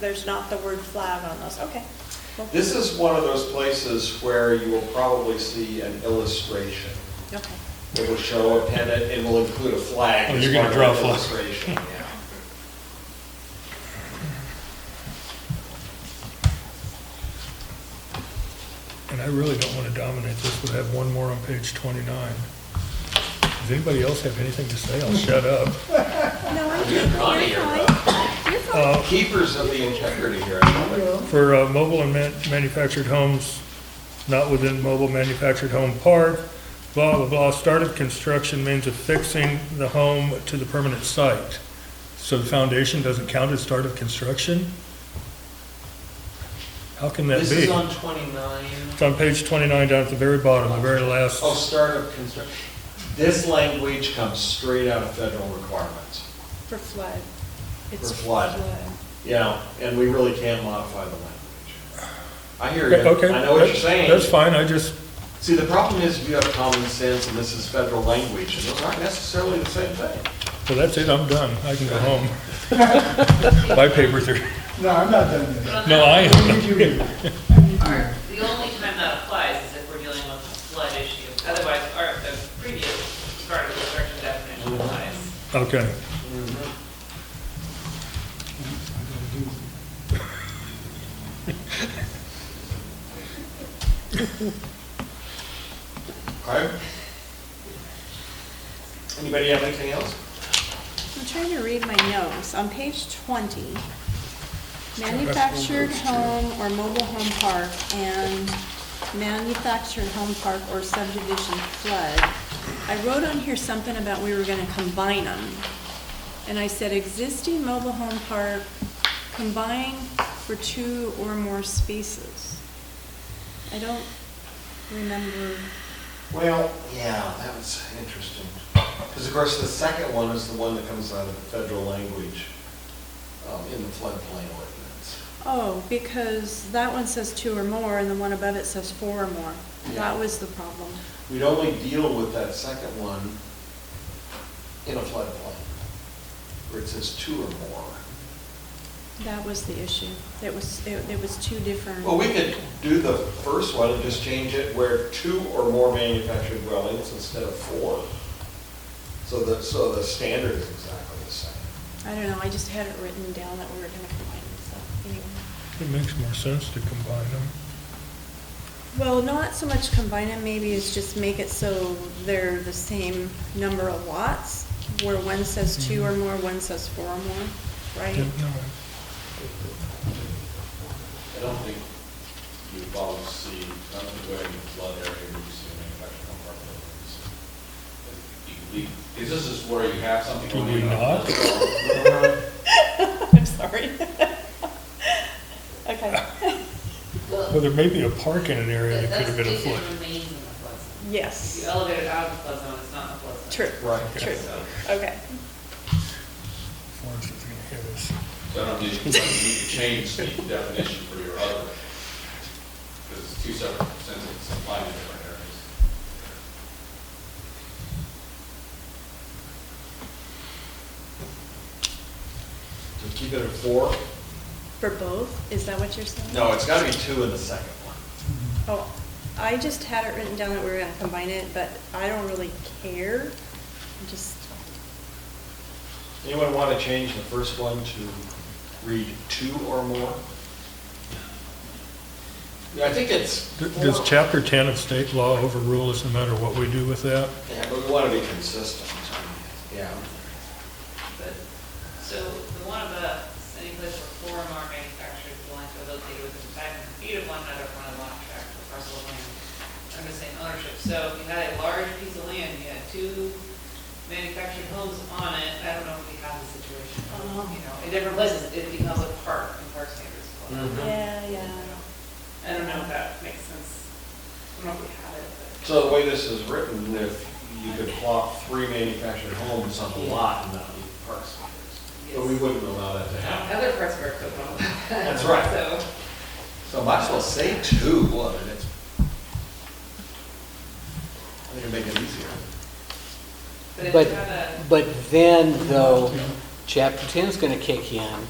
there's not the word flag on those, okay. Well, This is one of those places where you will probably see an illustration. Okay, It will show a pennant, it will include a flag. Oh, as you're gonna part of draw a the flag. Illustration, yeah. And I really don't want to dominate this, we have one more on page 29. Does anybody else have anything to say? I'll shut up. no, I'm, You're funny, you're you're fine, you're fine. Uh, Keepers of the integrity here, I love it. For uh, mobile and man- manufactured homes, not within mobile manufactured home park, blah, blah, blah, start of construction means affixing the home to the permanent site. So the foundation doesn't count as start of construction? How can that This is be? on 29. It's on page 29 down at the very bottom, the very last. Oh, start of construction. This language comes straight out of federal requirements, For flood. It's For flood. you know, and we really can't modify the language. I hear you. Okay, I know what you're that's- saying. That's fine, I just, See, the problem is you have common sense and this is federal language and those aren't necessarily the same thing. well, that's it, I'm done, I can go home. My papers are, No, I'm not done yet. no, I I am. need you here. Our, the only time that applies is if we're dealing with a flood issue. Otherwise, our, the previous part of the construction definition applies. Okay, Okay? Anybody have anything else? I'm trying to read my notes. On page 20, manufactured home or mobile home park and manufactured home park or subdivision flood. I wrote on here something about we were going to combine them. And I said existing mobile home park combined for two or more spaces. I don't remember, Well, yeah, that was interesting. Because of course, the second one is the one that comes out of the federal language um, in the floodplain ordinance. oh, because that one says two or more and the one above it says four or more. Yeah. That was the problem. We'd only deal with that second one in a floodplain, where it says two or more. That was the issue. It was, it it was two different. Well, we could do the first one and just change it where two or more manufactured dwellings instead of four. So the, so the standard is exactly the same. I don't know, I just had it written down that we were gonna combine them, so, anyway. it makes more sense to combine them. Well, not so much combine them, maybe it's just make it so they're the same number of lots, where one says two Mm-hmm. or more, one says four or more, right? Yeah, no. I don't think you would follow C, I don't think we're in the flood area where you see manufactured home park buildings. You leave- Is this is where you have something? Do going we on? not? I'm sorry. Okay, Oh. Well, there may be a park in an area that That- could have been a that's flood. stated remains in the flood zone. If you yes, elevate it out of the flood zone, it's not in the flood zone. true, Right. true, okay. Florence is gonna hit us. So I don't need, you could change the definition for your other, because it's two separate sentences applying to different areas. So keep it at four? For both, is that what you're saying? No, it's gotta be two in the second one. Oh, I just had it written down that we were gonna combine it, but I don't really care. I Just, Anyone want to change the first one to read two or more? Yeah, I think it's D- four. Does chapter 10 of state law overrule us no matter what we do with that? Yeah, but we want to be consistent. Yeah. But, so the one above, any place where four or more manufactured dwellings are located within five hundred feet of one another from a lot tract or parcel of land under the same ownership. So if you had a large piece of land, you had two manufactured homes on it, I don't know if we have the situation. You know, in different places, it becomes a park and park standards. apply. Mm-hmm. yeah, yeah. I don't know if that makes sense. I don't know if we have it, but. So the way this is written, if you could plot three manufactured homes on the lot and not be park standards. But we Yes. wouldn't allow that to happen. Other parts of our code don't. That's right. So. So might as well say two, what, and it's. I think it'd make it easier. But if But- you have a, But then, though, chapter 10 is going to kick in,